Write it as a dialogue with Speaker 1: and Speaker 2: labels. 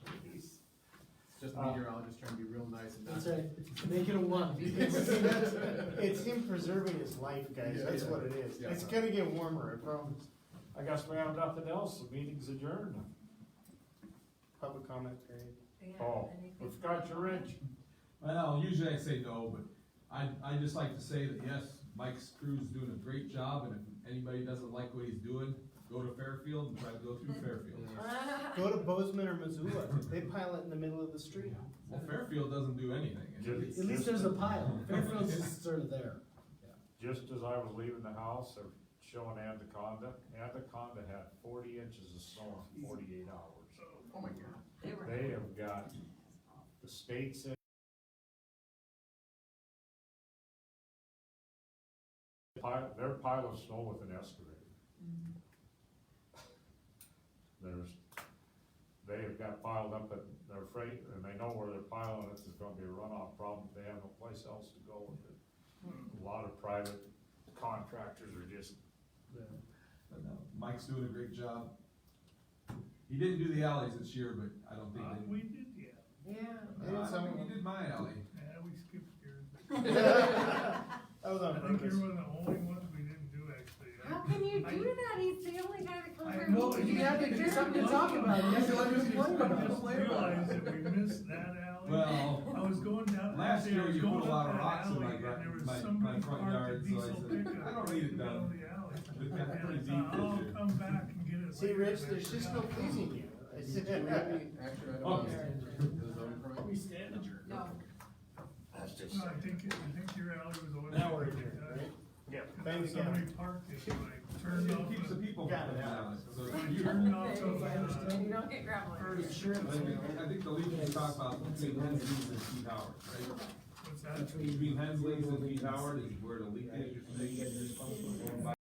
Speaker 1: Just
Speaker 2: Uh,
Speaker 1: meteorologist trying to be real nice and not.
Speaker 2: That's right, make it a one. It's him- it's him preserving his life, guys,
Speaker 1: Yeah,
Speaker 2: that's
Speaker 1: yeah.
Speaker 2: what it is.
Speaker 1: Yeah.
Speaker 2: It's gonna get warmer, I promise.
Speaker 3: I guess we have nothing else, the meeting's adjourned.
Speaker 2: Public comment period.
Speaker 3: Oh, we've got your wrench.
Speaker 4: Well, usually I say no, but I, I just like to say that yes, Mike Crew's doing a great job, and if anybody doesn't like what he's doing, go to Fairfield and try to go through Fairfield.
Speaker 2: Go to Bozeman or Missoula, they pile it in the middle of the street.
Speaker 4: Well, Fairfield doesn't do anything.
Speaker 3: Just-
Speaker 2: At least there's a pile, Fairfield's just sort of there.
Speaker 3: Just as I was leaving the house, they're showing Anaconda, Anaconda had forty inches of snow in forty-eight hours.
Speaker 1: Oh my god.
Speaker 3: They have got, the state's in pile, their pile of snow with an excavator. Mm-hmm. There's, they have got piled up at their freight, and they know where they're piling it, there's gonna be a runoff problem, they have no place else to go with it. A lot of private contractors are just
Speaker 4: But no, Mike's doing a great job. He didn't do the alleys this year, but I don't think they.
Speaker 5: Uh, We did, yeah,
Speaker 2: Yeah.
Speaker 4: Uh, I think he did my alley.
Speaker 5: yeah, we skipped yours.
Speaker 2: That was
Speaker 5: I
Speaker 2: on
Speaker 5: think
Speaker 2: purpose.
Speaker 5: you're one of the only ones we didn't do actually.
Speaker 6: How can you do that? He's the only guy that comes
Speaker 5: I
Speaker 6: here.
Speaker 5: know,
Speaker 6: with
Speaker 5: you
Speaker 6: me.
Speaker 5: have to do something to talk about.
Speaker 2: You have to
Speaker 1: let us complain about
Speaker 5: I
Speaker 1: it.
Speaker 5: just realized that we missed that alley.
Speaker 4: Well,
Speaker 5: I was going down.
Speaker 4: Last
Speaker 5: actually, I
Speaker 4: year
Speaker 5: was
Speaker 4: you put a
Speaker 5: going
Speaker 4: lot
Speaker 5: up
Speaker 4: of
Speaker 5: that
Speaker 4: rocks in
Speaker 5: alley,
Speaker 4: my
Speaker 5: and
Speaker 4: gar-
Speaker 5: there was
Speaker 4: my-
Speaker 5: somebody
Speaker 4: my front
Speaker 5: parked a
Speaker 4: yard, so I
Speaker 5: diesel
Speaker 4: said,
Speaker 5: pickup
Speaker 4: "I don't need it
Speaker 5: in the middle
Speaker 4: done."
Speaker 5: of the alley.
Speaker 4: It got
Speaker 5: And I
Speaker 4: pretty deep
Speaker 5: thought,
Speaker 4: this
Speaker 5: "I'll
Speaker 4: year."
Speaker 5: come back and get it
Speaker 2: See,
Speaker 5: later,"
Speaker 2: Rich,
Speaker 5: but I
Speaker 2: there's just no
Speaker 5: forgot.
Speaker 2: pleasing you.
Speaker 1: Do we
Speaker 2: I
Speaker 1: have
Speaker 2: said-
Speaker 1: any action items?
Speaker 4: Okay.
Speaker 1: The zoning permit?
Speaker 6: No.
Speaker 5: No, I think, I think your alley was the one.
Speaker 2: Now
Speaker 5: that
Speaker 2: we're
Speaker 5: we
Speaker 2: here,
Speaker 5: did.
Speaker 2: right?
Speaker 3: Yeah.
Speaker 2: Thanks,
Speaker 5: Somebody parked it, like, turned
Speaker 4: It
Speaker 5: off.
Speaker 4: keeps the
Speaker 5: the-
Speaker 4: people from
Speaker 2: Got it,
Speaker 4: coming
Speaker 2: Alex.
Speaker 4: out, so it's
Speaker 5: Like, turned
Speaker 4: beautiful.
Speaker 5: off
Speaker 6: If
Speaker 5: those,
Speaker 6: I understand,
Speaker 5: uh,
Speaker 6: you don't get gravelin.
Speaker 5: first-
Speaker 4: I think, I think the Legions talk about between Hensley's and Pete Howard, right?
Speaker 5: what's that?
Speaker 4: Between Hensley's and Pete Howard is where the leak is.